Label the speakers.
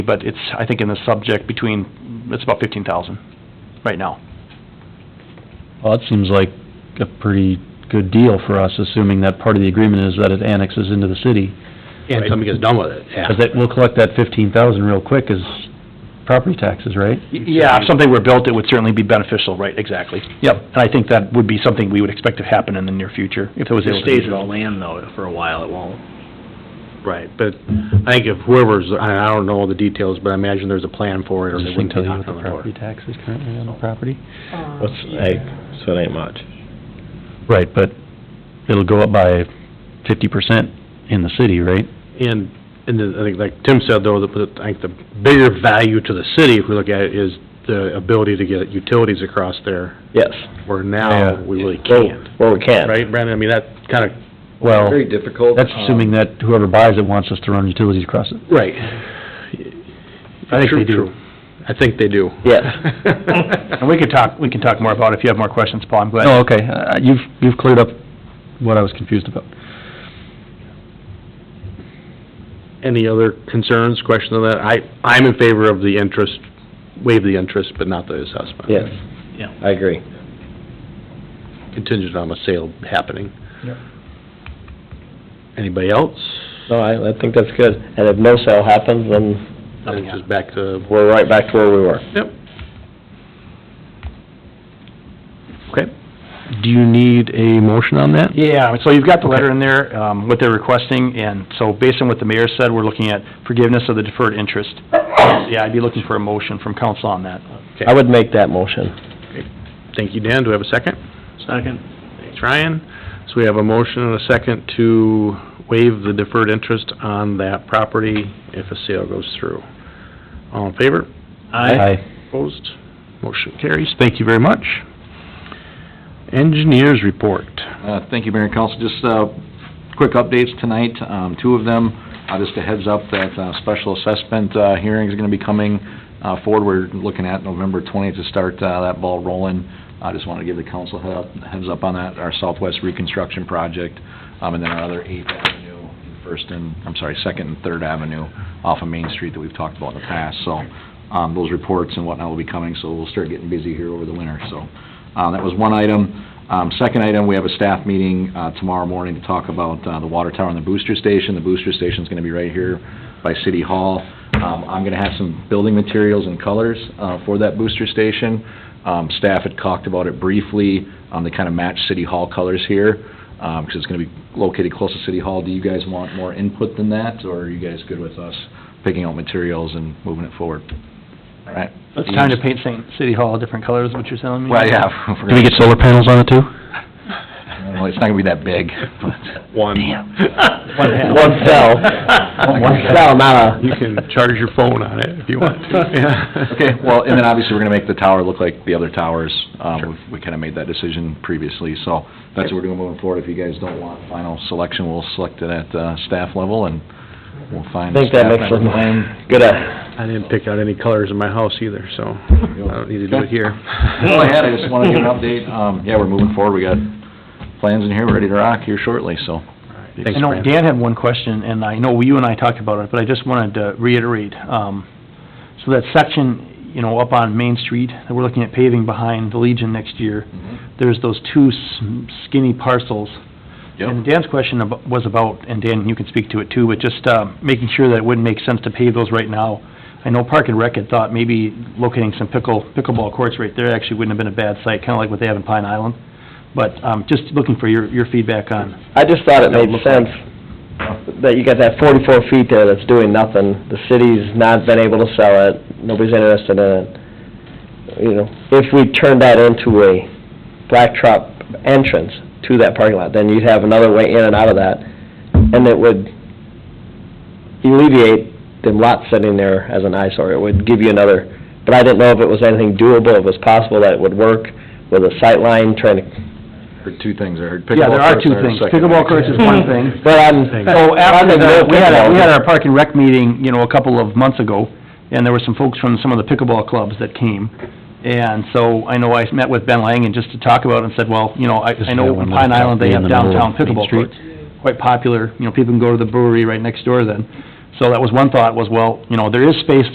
Speaker 1: But it's, I think in the subject between, it's about fifteen thousand right now.
Speaker 2: Well, it seems like a pretty good deal for us, assuming that part of the agreement is that it annexes into the city.
Speaker 3: And somebody gets done with it, yeah.
Speaker 2: Because that, we'll collect that fifteen thousand real quick as property taxes, right?
Speaker 1: Y- Yeah, if something were built, it would certainly be beneficial, right, exactly. Yep, and I think that would be something we would expect to happen in the near future, if it was able
Speaker 3: It
Speaker 1: to be
Speaker 3: stays as
Speaker 1: developed.
Speaker 3: land though, for a while it won't. Right, but I think if whoever's, I I don't know the details, but I imagine there's a plan for it or they
Speaker 2: Does this thing
Speaker 3: wouldn't be
Speaker 2: tell you what
Speaker 3: knocking
Speaker 2: the
Speaker 3: on the door.
Speaker 2: property tax is currently on the property?
Speaker 4: What's,
Speaker 5: What's, like, so it ain't much.
Speaker 2: Right, but it'll go up by fifty percent in the city, right?
Speaker 3: And, and then I think like Tim said though, that- that I think the bigger value to the city, if we look at it, is the ability to get utilities across there,
Speaker 5: Yes.
Speaker 3: where
Speaker 2: Yeah.
Speaker 3: now we really can't.
Speaker 5: Well, we can.
Speaker 3: Right, Brandon, I mean, that kind of,
Speaker 2: Well,
Speaker 6: Very
Speaker 5: um,
Speaker 6: difficult.
Speaker 2: that's assuming that whoever buys it wants us to run utilities across it.
Speaker 3: right. I think they
Speaker 2: True,
Speaker 3: do.
Speaker 2: true.
Speaker 3: I think they do.
Speaker 5: Yes.
Speaker 1: And we could talk, we can talk more about it if you have more questions, Paul, I'm glad.
Speaker 2: Oh, okay, Uh, you've, you've cleared up what I was confused about.
Speaker 3: Any other concerns, questions on that? I, I'm in favor of the interest, waive the interest, but not the assessment.
Speaker 5: Yes.
Speaker 1: Yeah.
Speaker 5: I agree.
Speaker 3: Contingent on a sale happening. Anybody else?
Speaker 5: No, I, I think that's good. And if no sale happens, then
Speaker 3: Nothing. Just back to,
Speaker 5: we're right back to where we were.
Speaker 3: yep. Okay.
Speaker 2: Do you need a motion on that?
Speaker 1: Yeah, so you've got the letter in there, um, what they're requesting, and so based on what the mayor said, we're looking at forgiveness of the deferred interest. Yeah, I'd be looking for a motion from council on that.
Speaker 5: I would make that motion.
Speaker 3: Thank you, Dan. Do we have a second? Second. Thanks, Ryan. So we have a motion and a second to waive the deferred interest on that property if a sale goes through. All in favor?
Speaker 2: Aye.
Speaker 3: Opposed? Motion carries. Thank you very much. Engineers report.
Speaker 6: Uh, Thank you, Mayor and Council. Just uh, quick updates tonight, um, two of them. Uh, Just a heads up that uh, special assessment uh, hearing is going to be coming uh, forward. We're looking at November 20th to start uh, that ball rolling. I just wanted to give the council a head up- heads up on that, our Southwest Reconstruction Project, um, and then our other Eighth Avenue, First and, I'm sorry, Second and Third Avenue off of Main Street that we've talked about in the past. So um, those reports and whatnot will be coming, so we'll start getting busy here over the winter, so. uh, That was one item. Um, Second item, we have a staff meeting uh, tomorrow morning to talk about uh, the water tower and the booster station. The booster station's going to be right here by City Hall. Um, I'm going to have some building materials and colors uh, for that booster station. Um, Staff had talked about it briefly, um, they kind of match City Hall colors here, because it's going to be located close to City Hall. Do you guys want more input than that, or are you guys good with us picking out materials and moving it forward? All right?
Speaker 1: It's time to paint Saint City Hall different colors, what you're telling me?
Speaker 6: Well, yeah.
Speaker 2: Do we get solar panels on it too?
Speaker 6: Well, it's not going to be that big, but...
Speaker 3: One.
Speaker 5: One cell. One cell, not
Speaker 3: You
Speaker 5: a,
Speaker 3: can charge your phone on it if you want to. Yeah.
Speaker 6: Okay, well, and then obviously, we're gonna make the tower look like the other towers. Um, we kinda made that decision previously, so that's what we're doing moving forward. If you guys don't want final selection, we'll select it at, uh, staff level and we'll
Speaker 5: I
Speaker 6: find.
Speaker 5: think that
Speaker 6: staff
Speaker 5: makes
Speaker 6: member.
Speaker 5: them, good, uh,
Speaker 3: I didn't pick out any colors in my house either, so I don't need to do it here.
Speaker 6: That's all I had, I just wanna give an update. Um, yeah, we're moving forward. We got plans in here, we're ready to rock here shortly, so.
Speaker 1: I
Speaker 3: Thanks,
Speaker 1: know
Speaker 3: Brandon.
Speaker 1: Dan had one question, and I know you and I talked about it, but I just wanted to reiterate. um, So that section, you know, up on Main Street, that we're looking at paving behind the Legion next year, there's those two s- skinny parcels.
Speaker 6: Yep.
Speaker 1: And Dan's question ab- was about, and Dan, you can speak to it too, but just um, making sure that it wouldn't make sense to pave those right now. I know Park and Rec had thought maybe locating some pickle, pickleball courts right there actually wouldn't have been a bad site, kind of like what they have in Pine Island. But um, just looking for your, your feedback on
Speaker 5: I just thought it made sense that you got that forty-four feet there that's doing nothing. The city's not been able to sell it, nobody's interested in it. You know, if we turned that into a blacktop entrance to that parking lot, then you'd have another way in and out of that. And it would alleviate the lot sitting there as an eyesore. It would give you another, but I didn't know if it was anything doable, if it was possible that it would work with a sight line trying to
Speaker 6: Heard two things, I heard
Speaker 1: Yeah,
Speaker 6: pickleball
Speaker 1: there are
Speaker 6: courts.
Speaker 1: two
Speaker 6: I heard
Speaker 1: things.
Speaker 6: second.
Speaker 1: Pickleball courts is one
Speaker 6: Hmm.
Speaker 1: thing.
Speaker 5: But I'm,
Speaker 1: So after the, we had, a- we had
Speaker 5: a
Speaker 1: our park and rec meeting, you know, a couple of months ago, and there were some folks from some of the pickleball clubs that came. And so I know I met with Ben Lang and just to talk about it and said, well, you know, I, I know in Pine Island, they have downtown pickleball courts. Quite popular, you know, people can go to the brewery right next door then. So that was one thought was, well, you know, there is space